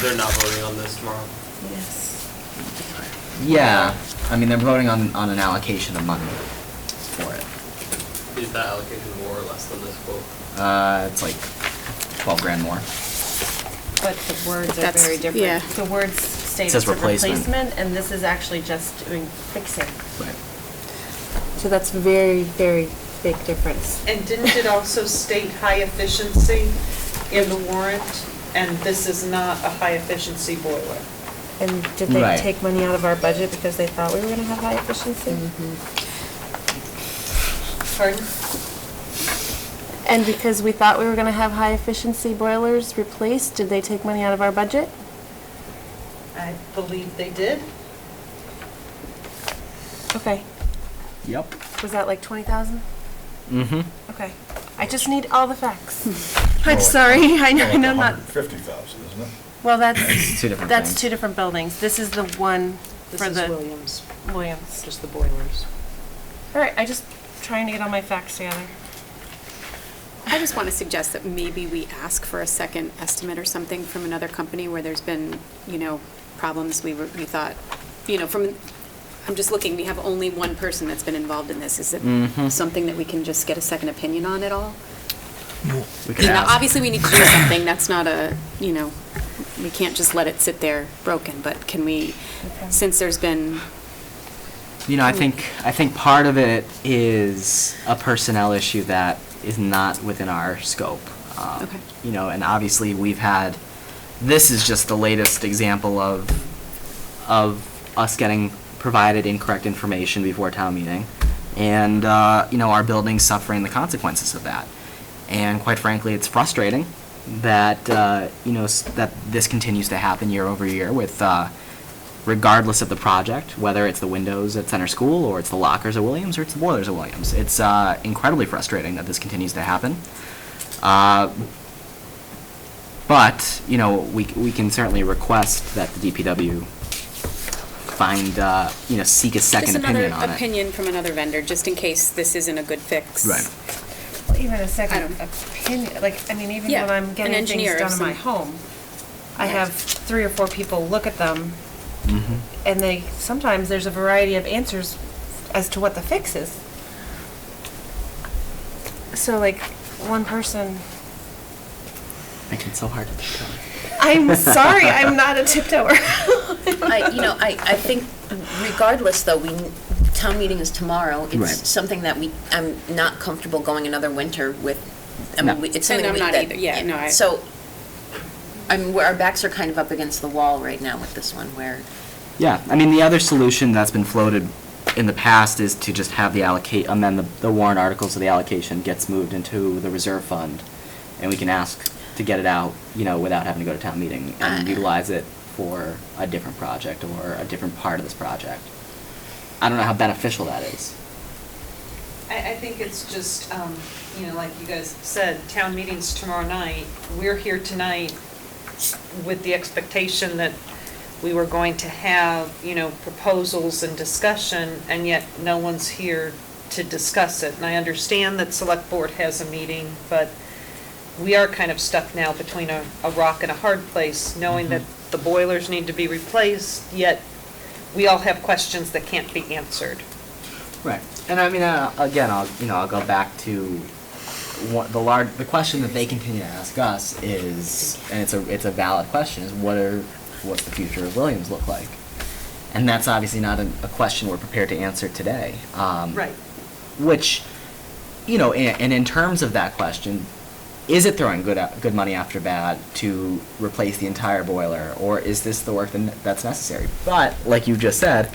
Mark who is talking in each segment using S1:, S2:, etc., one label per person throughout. S1: They're not voting on this tomorrow.
S2: Yes.
S3: Yeah, I mean, they're voting on, on an allocation of money for it.
S1: Is that allocation more or less than this quote?
S3: Uh, it's like twelve grand more.
S2: But the words are
S4: That's-
S2: very different.
S4: yeah.
S2: The words state
S3: It
S2: it's
S3: says
S2: a
S3: replacement.
S2: replacement, and this is actually just doing fixing.
S3: Right.
S4: So that's very, very big difference.
S5: And didn't it also state high efficiency in the warrant? And this is not a high efficiency boiler.
S4: And did they
S3: Right.
S4: take money out of our budget because they thought we were gonna have high efficiency?
S5: Mm-hmm. Pardon?
S4: And because we thought we were gonna have high efficiency boilers replaced, did they take money out of our budget?
S5: I believe they did.
S4: Okay,
S3: Yep.
S4: was that like twenty thousand?
S3: Mm-hmm.
S4: Okay, I just need all the facts.
S2: I'm sorry, I know, I know not,
S6: Fifty thousand, isn't it?
S2: well, that's,
S3: It's two different
S2: that's
S3: things.
S2: two different buildings. This is the one
S5: This
S2: for
S5: is
S2: the
S5: Williams,
S2: Williams.
S5: just the boilers.
S4: All right, I just trying to get all my facts together.
S7: I just want to suggest that maybe we ask for a second estimate or something from another company where there's been, you know, problems we were, we thought, you know, from, I'm just looking, we have only one person that's been involved in this. Is
S3: Mm-hmm.
S7: it something that we can just get a second opinion on at all?
S3: We could
S7: You know,
S3: ask.
S7: obviously, we need to do something. That's not a, you know, we can't just let it sit there broken, but can we, since there's been,
S3: You know, I think, I think part of it is a personnel issue that is not within our scope. Um,
S7: Okay.
S3: You know, and obviously, we've had, this is just the latest example of, of us getting provided incorrect information before town meeting, and, uh, you know, our building suffering the consequences of that. And quite frankly, it's frustrating that, uh, you know, s- that this continues to happen year over year with, uh, regardless of the project, whether it's the windows at Center School, or it's the lockers at Williams, or it's the boilers at Williams. It's uh, incredibly frustrating that this continues to happen. Uh, But, you know, we, c- we can certainly request that the DPW find, uh, you know, seek a
S7: just
S3: second
S7: another
S3: opinion on it.
S7: opinion from another vendor, just in case this isn't a good fix.
S3: Right.
S4: Well, even a
S7: I
S4: second
S7: don't-
S4: opinion, like, I mean, even
S7: Yeah,
S4: when I'm
S7: an
S4: getting
S7: engineer
S4: things
S7: of
S4: done in my
S7: some-
S4: home, I
S7: Right.
S4: have three or four people look at them,
S3: Mhm.
S4: and they, sometimes there's a variety of answers as to what the fix is. So like, one person,
S3: Making it so hard to pick on.
S4: I'm sorry, I'm not a tiptoeer.
S2: I, you know, I, I think regardless, though, we, town meeting is tomorrow.
S3: Right.
S2: It's something that we, I'm not comfortable going another winter with, I
S3: No.
S2: mean, we- it's something
S7: And I'm
S2: we-
S7: not
S2: that-
S7: either. Yeah, no, I-
S2: So, I mean, we're- our backs are kind of up against the wall right now with this one, where
S3: Yeah, I mean, the other solution that's been floated in the past is to just have the allocate, amend the, the warrant articles of the allocation gets moved into the reserve fund, and we can ask to get it out, you know, without having to go to town meeting, and
S2: Uh.
S3: utilize it for a different project or a different part of this project. I don't know how beneficial that is.
S5: I, I think it's just, um, you know, like you guys said, town meeting's tomorrow night. We're here tonight with the expectation that we were going to have, you know, proposals and discussion, and yet no one's here to discuss it. And I understand that select board has a meeting, but we are kind of stuck now between a, a rock and a hard place, knowing that the boilers need to be replaced, yet we all have questions that can't be answered.
S3: Right, and I mean, uh, again, I'll, you know, I'll go back to what the large, the question that they continue to ask us is, and it's a, it's a valid question, is what are, what's the future of Williams look like? And that's obviously not a, a question we're prepared to answer today. Um, Which, you know, and, and in terms of that question, is it throwing good, out- good money after bad to replace the entire boiler, or is this the work that- that's necessary? But, like you just said,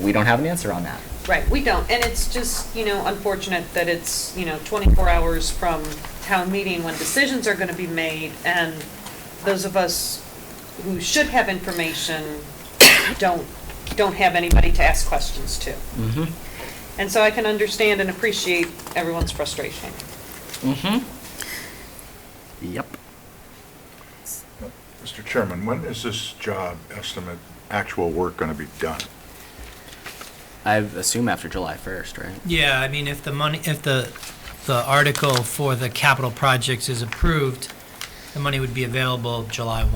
S3: we don't have an answer on that.
S5: Right, we don't, and it's just, you know, unfortunate that it's, you know, 24 hours from town meeting when decisions are going to be made, and those of us who should have information don't, don't have anybody to ask questions to.
S3: Mm-hmm.
S5: And so I can understand and appreciate everyone's frustration.
S3: Mm-hmm. Yep.
S6: Mr. Chairman, when is this job estimate, actual work going to be done?
S3: I assume after July first, right?
S8: Yeah, I mean, if the money, if the, the article for the capital projects is approved, the money would be available July 1.